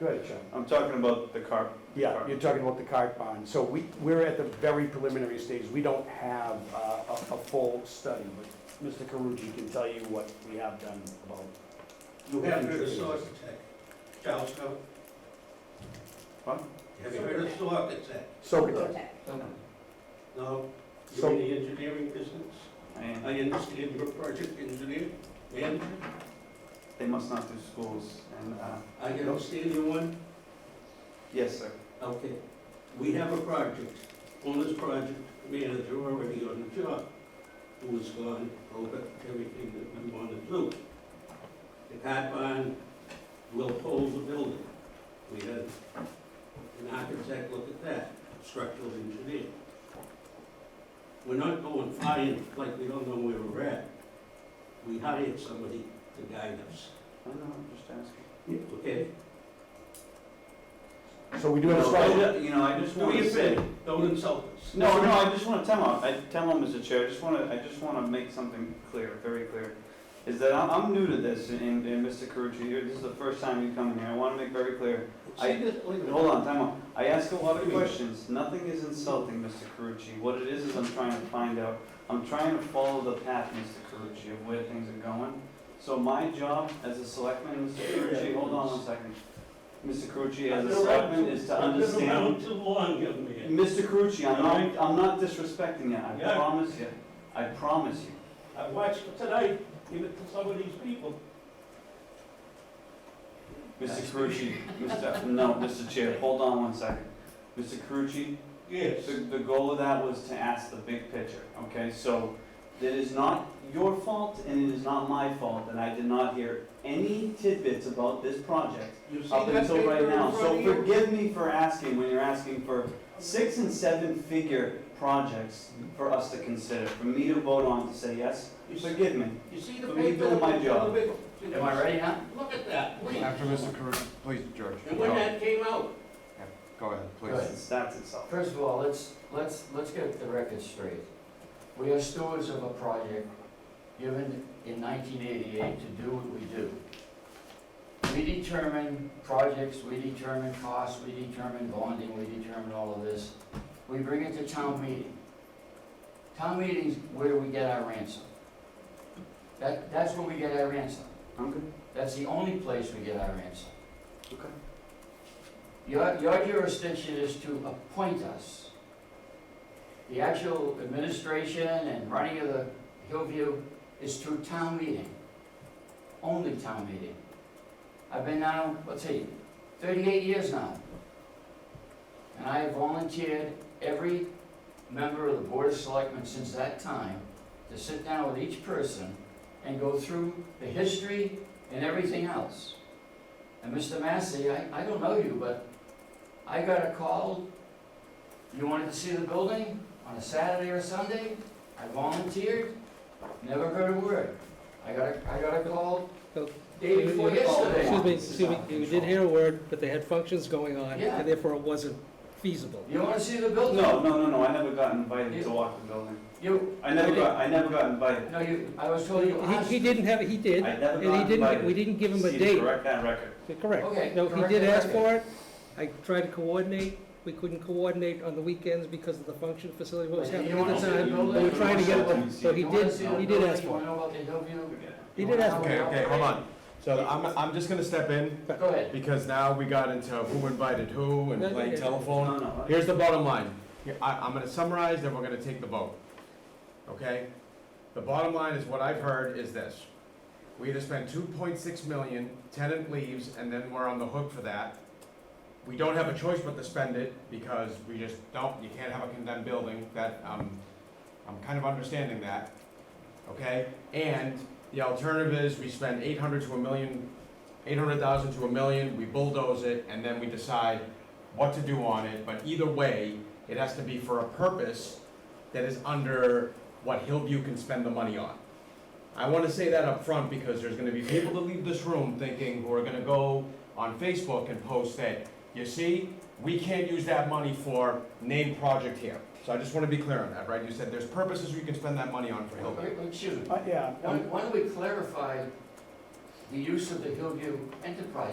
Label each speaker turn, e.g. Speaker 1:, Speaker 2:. Speaker 1: Go ahead, Sean.
Speaker 2: I'm talking about the car.
Speaker 1: Yeah, you're talking about the cart bond. So we, we're at the very preliminary stage. We don't have uh, a, a full study, but Mr. Karugi can tell you what we have done about.
Speaker 3: You have heard of Source Tech, Charles Cove?
Speaker 2: What?
Speaker 3: Have you heard of Source Tech?
Speaker 1: Socotec.
Speaker 3: No? You're
Speaker 1: So-
Speaker 3: in the engineering business?
Speaker 2: I am-
Speaker 3: I understand you're a project engineer, manager?
Speaker 2: They must not do schools, and, uh,
Speaker 3: I understand you one?
Speaker 2: yes, sir.
Speaker 3: Okay. We have a project, owner's project manager already on the job, who has gone over everything that we want to do. The cat barn will hold the building. We had an architect look at that, structural engineer. We're not going flying like we don't know where we're at. We hired somebody to guide us,
Speaker 2: I don't know, I'm just asking.
Speaker 3: okay?
Speaker 1: So we do have a study.
Speaker 2: No, I- You know, I just want to say,
Speaker 3: Don't insult us.
Speaker 2: no, no, I just want to tell him, I tell him, Mr. Chair, I just want to, I just want to make something clear, very clear, is that I'm, I'm new to this, and, and Mr. Carucci, you're, this is the first time you come in here, I want to make very clear. I-
Speaker 3: See this- wait a minute.
Speaker 2: Hold on, time out. I ask a lot of questions. Nothing is insulting, Mr. Carucci. What it is, is I'm trying to find out. I'm trying to follow the path, Mr. Carucci, of where things are going. So my job as a selectman, Mr. Carucci, hold on one second. Mr. Carucci, as a selectman, is to
Speaker 3: I've
Speaker 2: understand.
Speaker 3: been around too long, young man.
Speaker 2: Mr. Carucci, I'm not, I'm not disrespecting you. I
Speaker 3: Yeah.
Speaker 2: promise you. I promise you.
Speaker 3: I watched tonight, give it to some of these people.
Speaker 2: Mr. Carucci, Mr., no, Mr. Chair, hold on one second. Mr. Carucci,
Speaker 3: Yes.
Speaker 2: The, the goal of that was to ask the big picture, okay? So it is not your fault and it is not my fault that I did not hear any tidbits about this project
Speaker 3: You see
Speaker 2: up
Speaker 3: that
Speaker 2: until
Speaker 3: paper
Speaker 2: right
Speaker 3: in
Speaker 2: now.
Speaker 3: front
Speaker 2: So
Speaker 3: of you?
Speaker 2: forgive me for asking when you're asking for six and seven figure projects for us to consider, for me to vote on to say yes.
Speaker 3: You see-
Speaker 2: Forgive me.
Speaker 3: You see the
Speaker 2: for me
Speaker 3: paper?
Speaker 2: doing my
Speaker 3: in
Speaker 2: job.
Speaker 3: front of you?
Speaker 4: Am I ready now?
Speaker 3: Look at that, please.
Speaker 5: After Mr. Karucci, please, George.
Speaker 3: And when
Speaker 5: Go-
Speaker 3: that came out,
Speaker 5: Go ahead,
Speaker 4: Go
Speaker 5: please.
Speaker 4: ahead.
Speaker 2: It's, that's itself.
Speaker 4: First of all, let's, let's, let's get the record straight. We are stewards of a project given in nineteen eighty-eight to do what we do. We determine projects, we determine costs, we determine bonding, we determine all of this. We bring it to town meeting. Town meeting's where we get our ransom. That, that's where we get our ransom.
Speaker 2: I'm good.
Speaker 4: That's the only place we get our ransom.
Speaker 2: Okay.
Speaker 4: Your, your jurisdiction is to appoint us. The actual administration and running of the Hillview is through town meeting, only town meeting. I've been now, let's see, thirty-eight years now. And I have volunteered every member of the Board of Selectmen since that time to sit down with each person and go through the history and everything else. And Mr. Massey, I, I don't know you, but I got a call, you wanted to see the building on a Saturday or Sunday? I volunteered, never heard a word. I got a, I got a call day before yesterday.
Speaker 6: Excuse me, excuse me, you did hear a word, but they had functions going on,
Speaker 4: Yeah.
Speaker 6: and therefore it wasn't feasible.
Speaker 4: You wanna see the building?
Speaker 2: No, no, no, no, I never got invited to walk the building.
Speaker 4: You,
Speaker 2: I never got, I never got invited.
Speaker 4: no, you, I was told you asked.
Speaker 6: He, he didn't have, he
Speaker 2: I
Speaker 6: did,
Speaker 2: never got
Speaker 6: and
Speaker 2: invited.
Speaker 6: he didn't, we didn't give him a
Speaker 2: Steve,
Speaker 6: date.
Speaker 2: Correct that record.
Speaker 4: Okay,
Speaker 6: Correct. No, he
Speaker 4: correct
Speaker 6: did
Speaker 4: the
Speaker 6: ask
Speaker 4: record.
Speaker 6: for it. I tried to coordinate. We couldn't coordinate on the weekends because of the function facility, what was
Speaker 4: But you
Speaker 6: happening at the
Speaker 4: wanna see the
Speaker 6: time.
Speaker 4: building?
Speaker 6: They were trying to get,
Speaker 2: Consultant.
Speaker 6: so he
Speaker 4: You wanna
Speaker 6: did,
Speaker 4: see the
Speaker 6: he did
Speaker 4: building?
Speaker 6: ask
Speaker 4: You
Speaker 6: for
Speaker 4: wanna
Speaker 6: it.
Speaker 4: know about the Hillview?
Speaker 6: He did ask for
Speaker 5: Okay, okay, hold on. So I'm, I'm just gonna step in
Speaker 4: Go ahead.
Speaker 5: because now we got into who invited who and playing telephone.
Speaker 2: No, no,
Speaker 5: Here's the bottom line. Here, I, I'm gonna summarize, then we're gonna take the vote. Okay? The bottom line is what I've heard is this. We either spend two point six million, tenant leaves, and then we're on the hook for that. We don't have a choice but to spend it because we just don't, you can't have a condemned building, that, um, I'm kind of understanding that. Okay? And the alternative is we spend eight hundred to a million, eight hundred thousand to a million, we bulldoze it, and then we decide what to do on it, but either way, it has to be for a purpose that is under what Hillview can spend the money on. I wanna say that up front because there's gonna be people that leave this room thinking, who are gonna go on Facebook and post that, you see, we can't use that money for name project here. So I just wanna be clear on that, right? You said there's purposes we can spend that money on for Hillview.
Speaker 4: Wait, wait, Excuse me.
Speaker 1: Uh, Yeah.
Speaker 4: Why why don't we clarify the use of the Hillview Enterprise